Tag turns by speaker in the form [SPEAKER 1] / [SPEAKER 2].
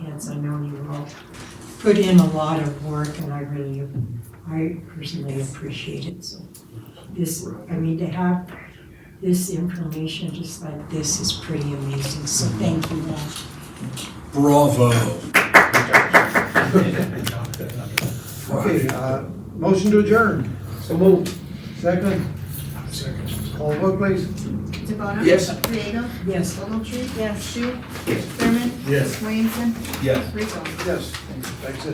[SPEAKER 1] since I know you all put in a lot of work and I really, I personally appreciate it, so. This, I mean, to have this information just like this is pretty amazing, so thank you all.
[SPEAKER 2] Bravo.
[SPEAKER 3] Okay, uh, motion to adjourn. So moved. Second? Second. Call vote please.
[SPEAKER 4] DeBona?
[SPEAKER 2] Yes.
[SPEAKER 4] Diego?
[SPEAKER 1] Yes.
[SPEAKER 4] Ogletree? Yes. Shu? Thurman?
[SPEAKER 2] Yes.
[SPEAKER 4] Williamson?
[SPEAKER 2] Yes.
[SPEAKER 4] Rico?
[SPEAKER 3] Yes. Thanks, That's it.